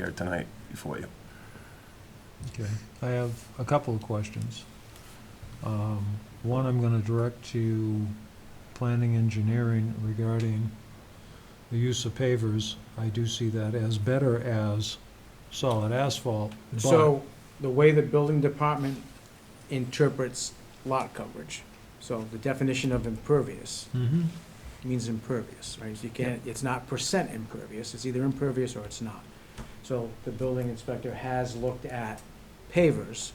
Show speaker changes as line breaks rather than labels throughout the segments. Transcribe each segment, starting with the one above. here tonight before you.
Okay, I have a couple of questions. Um, One, I'm gonna direct to planning engineering regarding the use of pavers. I do see that as better as solid asphalt, but,
So, the way the building department interprets lot coverage, so the definition of impervious
Mhm.
means impervious, right? So You can't, it's not percent impervious, it's either impervious or it's not. So the building inspector has looked at pavers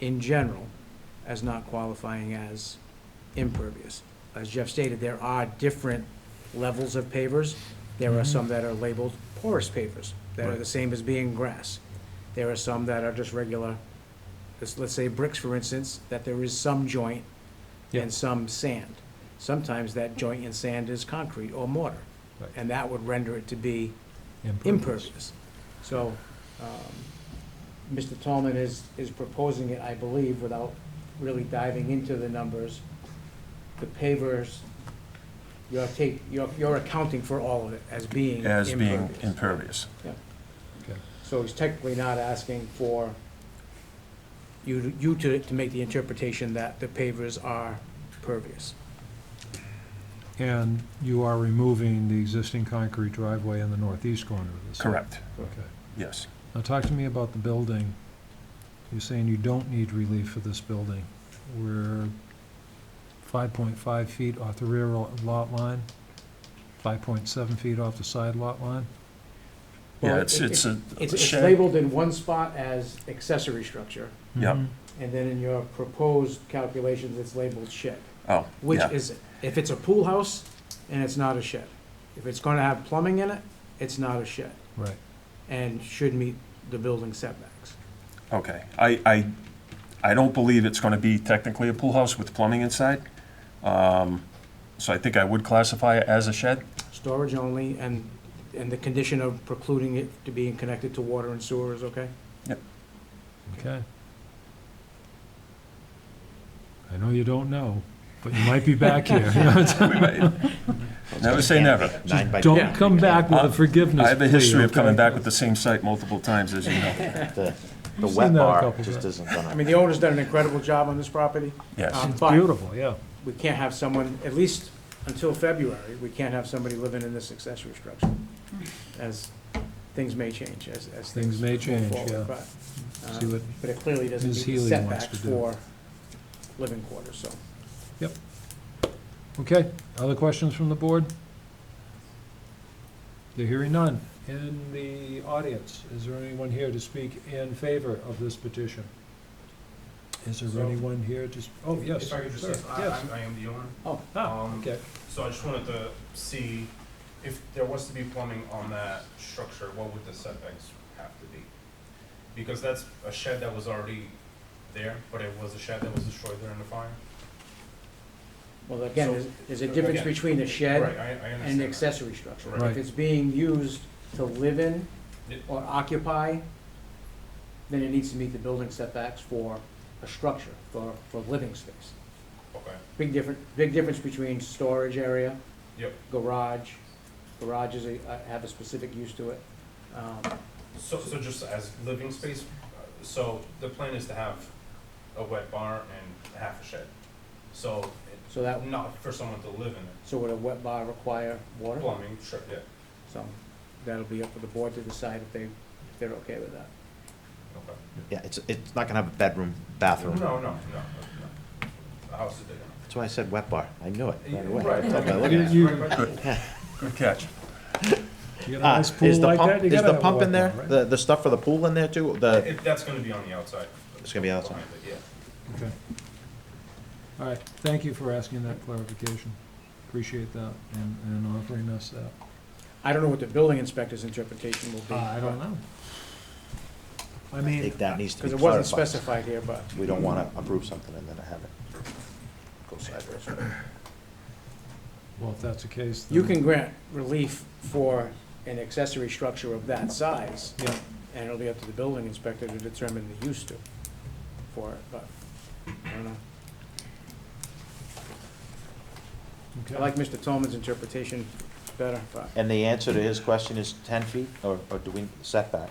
in general as not qualifying as impervious. As Jeff stated, there are different levels of pavers.
Mm-hmm.
There are some that are labeled porous pavers, that are the
Right.
same as being grass. There are some that are just regular, let's, let's say bricks, for instance, that there is some joint
Yeah.
and some sand. Sometimes that joint and sand is concrete or mortar,
Right.
and that would render it to be
impervious.
impervious. So, um, Mr. Tallman is, is proposing it, I believe, without really diving into the numbers. The pavers, you're take, you're, you're accounting for all of it as being
As being impervious.
impervious. So he's technically not asking for you, to- you to, to make the interpretation that the pavers are pervious.
And you are removing the existing concrete driveway in the northeast corner of the site.
Correct,
Okay.
yes.
Now, talk to me about the building. You're saying you don't need relief for this building. We're five point five feet off the rear lo- lot line, five point seven feet off the side lot line.
Yeah,
Well,
it's,
it-
it's a
It's, it's
shed.
labeled in one spot as accessory structure,
Yep.
Mhm.
and then in your proposed calculations, it's labeled shed.
Oh,
Which
yeah,
is, if it's a pool house, and it's not a shed. If it's gonna have plumbing in it, it's not a shed,
Right.
and should meet the building setbacks.
okay. I, I, I don't believe it's gonna be technically a pool house with plumbing inside. Um, So I think I would classify it as a shed.
Storage only, and, and the condition of precluding it to being connected to water and sewer is okay?
Okay. I know you don't know, but you might be back here.
We may- Never say never.
Nine by
Don't
Yeah.
come back with a forgiveness
I have a history of
plea,
coming
okay?
back with the same site multiple times, as you know.
The the
I've
wet
seen that a
bar
couple
just
times.
isn't gonna.
I mean, the owner's done an incredible job on this property,
Yes,
um,
It's
but
beautiful, yeah.
we can't have someone, at least until February, we can't have somebody living in this accessory structure, as things may change, as, as
Things
things
may
move
change, yeah.
forward. but, uh,
See what,
But it clearly doesn't
Ms.
meet the
Healy wants to
setbacks
do.
for living quarters, so.
okay. Other questions from the board? They're hearing none. In the audience, is there anyone here to speak in favor of this petition? Is there
So-
anyone here to, s- oh, yes.
If I could just,
sir,
I,
yes.
I- I am the owner,
Oh,
Ah,
um,
okay.
so I just wanted to see if there was to be plumbing on that structure, what would the setbacks have to be? Because that's a shed that was already there, but it was a shed that was destroyed during the fire.
well, again,
So-
there's, there's a difference
Again.
between a
Right,
shed
I, I understand
and an
that.
accessory structure.
Right.
If it's being used to live in
Yeah.
or occupy, then it needs to meet the building setbacks for a structure, for, for living space.
Okay,
Big different, big difference between storage area.
Yep.
Garage, garages are- uh, have a specific use to it. Um,
so, so just as living space, uh, so the plan is to have a wet bar and half a shed. So,
So that,
it- not for someone to live in it,
so would a wet bar require water?
plumbing, sure, yeah,
So that'll be up for the board to decide if they, if they're okay with that.
okay.
Yeah, it's, it's not gonna have a bedroom, bathroom.
No, no, no, no, the house is big enough.
That's why I said wet bar. I knew it right away.
Right.
I thought by looking at it.
You-
Right, right.
good catch.
You got a
Ah,
nice
Is
pool
the
like that,
pump,
you
is
gotta
the
have a
pump in there?
walkout, right?
The, the stuff for the pool in there too? The,
If that's gonna be on the outside.
It's gonna be outside.
Behind it, Yeah.
Okay. All right, thank you for asking that clarification. Appreciate that and, and offering us that.
I don't know what the building inspector's interpretation will be.
Uh,
Uh, know. I
I
mean,
think that needs to be
Because it wasn't
clarified.
specified here, but
We don't wanna approve something and then have it go sideways.
well, if that's the case, then.
you can grant relief for an accessory structure of that size,
Yeah,
and it'll be up to the building inspector to determine the use to, for it, but, I don't know. I
okay.
like Mr. Tolman's interpretation better, but
And the answer to his question is ten feet or, or do we setback?